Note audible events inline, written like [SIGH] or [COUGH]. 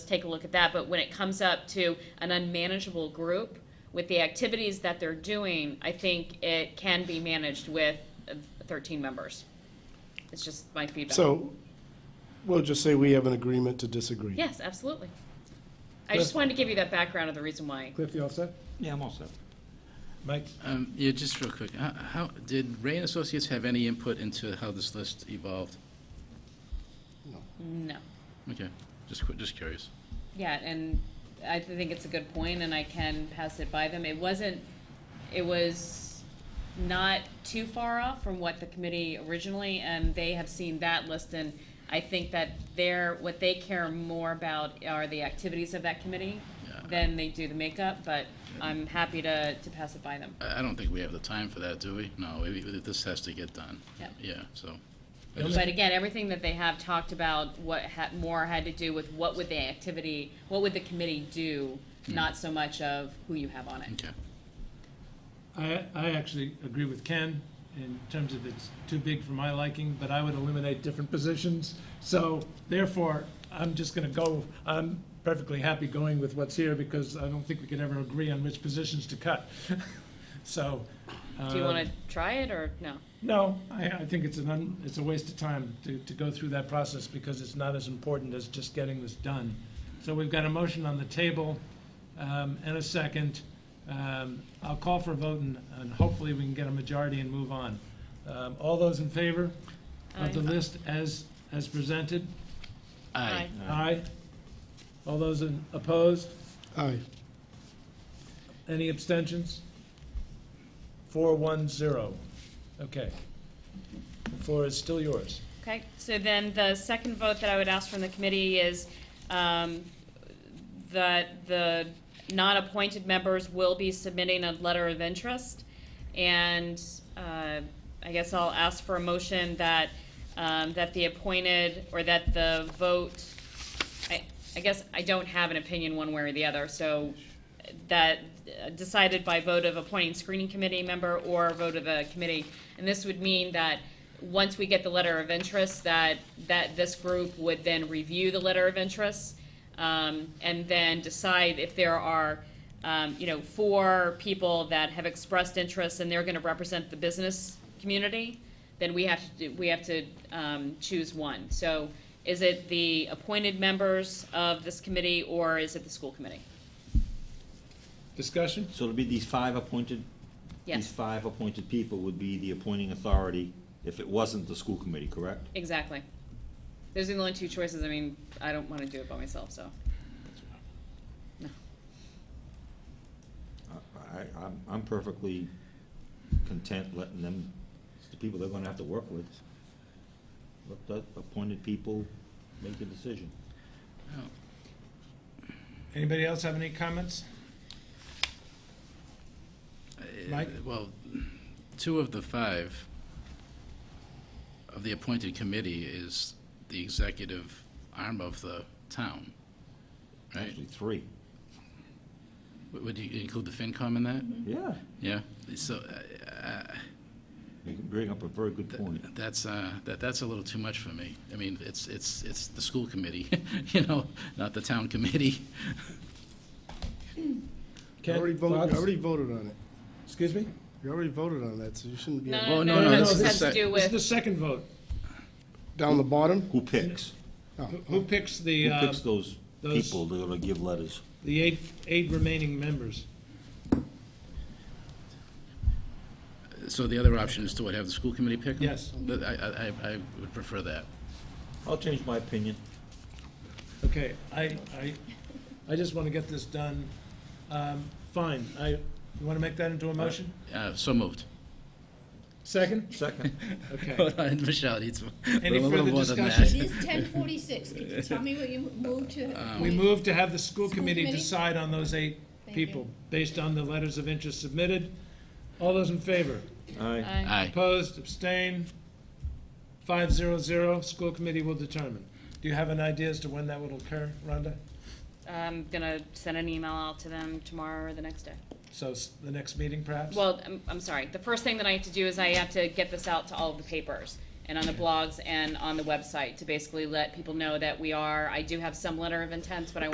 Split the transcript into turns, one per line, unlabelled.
take a look at that, but when it comes up to an unmanageable group with the activities that they're doing, I think it can be managed with uh, thirteen members. It's just my feedback.
So, we'll just say we have an agreement to disagree.
Yes, absolutely. I just wanted to give you that background of the reason why.
Cliff, you all set?
Yeah, I'm all set.
Mike?
Um, Yeah, just real quick, how- how, did Ray and Associates have any input into how this list evolved?
No.
Okay, just, qu- just curious.
Yeah, and I think it's a good point, and I can pass it by them. It wasn't, it was not too far off from what the committee originally, and they have seen that list, and I think that they're, what they care more about are the activities of that committee
Yeah.
than they do the makeup, but I'm happy to, to pass it by them.
I, I don't think we have the time for that, do we? No, we- we- this has to get done.
Yeah.
Yeah, so. I just-
But again, everything that they have talked about, what had, more had to do with what would the activity, what would the committee do,
Hmm.
not so much of who you have on it.
Okay,
I, I actually agree with Ken in terms of it's too big for my liking, but I would eliminate different positions. So therefore, I'm just going to go, I'm perfectly happy going with what's here because I don't think we could ever agree on which positions to cut. [LAUGHS] So.
Do you
uh,
want to try it or no?
No, I, I think it's an, un- it's a waste of time to, to go through that process because it's not as important as just getting this done. So we've got a motion on the table um, and a second. Um, I'll call for a vote and, and hopefully we can get a majority and move on. Um, All those in favor of the
Aye.
list as, as presented?
aye.
Aye. All those in- opposed?
Aye.
Any abstentions? Four, one, zero. Okay. The floor is still yours.
Okay, so then the second vote that I would ask from the committee is um, that the non-appointed members will be submitting a letter of interest. And uh, I guess I'll ask for a motion that, um, that the appointed, or that the vote, I, I guess I don't have an opinion one way or the other, so that uh, decided by vote of appointing screening committee member or vote of the committee. And this would mean that, once we get the letter of interest, that, that this group would then review the letter of interest, um, and then decide if there are, um, you know, four people that have expressed interest and they're gonna represent the business community, then we have to, do- we have to, um, choose one. So is it the appointed members of this committee or is it the school committee?
Discussion?
So it'll be these five appointed? These
Yes,
five appointed people would be the appointing authority if it wasn't the school committee, correct?
exactly. Those are the only two choices. I mean, I don't wanna do it by myself, so.
I, Uh, I- I'm, I'm perfectly content letting them, it's the people they're gonna have to work with. Let the appointed people make a decision.
Anybody else have any comments? Mike?
Uh, Well, two of the five of the appointed committee is the executive arm of the town, right?
Actually, three.
Would- Would you include the FinCom in that?
Yeah,
Yeah, so uh,
you bring up a very good point.
That's, uh, that, that's a little too much for me. I mean, it's, it's, it's the school committee, [LAUGHS] you know, not the town committee.
You
Ken,
already voted,
thoughts?
you already voted on it.
Excuse me?
You already voted on that, so you shouldn't be
Well,
no,
no,
no,
no,
this
this
has
is
to
sec-
do
This is the
with,
second vote.
down the bottom.
Who picks?
Oh,
Who- Who picks the,
Who
uh,
picks those
those-
people that are gonna give letters?
the eight, eight remaining members?
So the other option is to what, have the school committee pick 'em?
Yes.
But I, I, I- I would prefer that.
I'll change my opinion.
Okay, I, I, I just want to get this done. Um, Fine, I, you want to make that into a motion?
Uh, so moved.
Second?
Second,
Okay.
Hold on, [LAUGHS] Michelle needs.
Any
a little
further
more than
discussion?
that.
It is ten forty-six. Could you tell me what you moved to?
We move to have the school
School
committee
committee?
decide on those eight
Thank you.
people based on the letters of interest submitted. All those in favor?
aye.
Aye,
Opposed, abstain, five zero zero, school committee will determine. Do you have an idea as to when that will occur, Rhonda?
I'm gonna send an email out to them tomorrow or the next day.
So s- the next meeting perhaps?
Well, I'm, I'm sorry, the first thing that I have to do is I have to get this out to all of the papers and on the blogs and on the website to basically let people know that we are, I do have some letter of intents, but I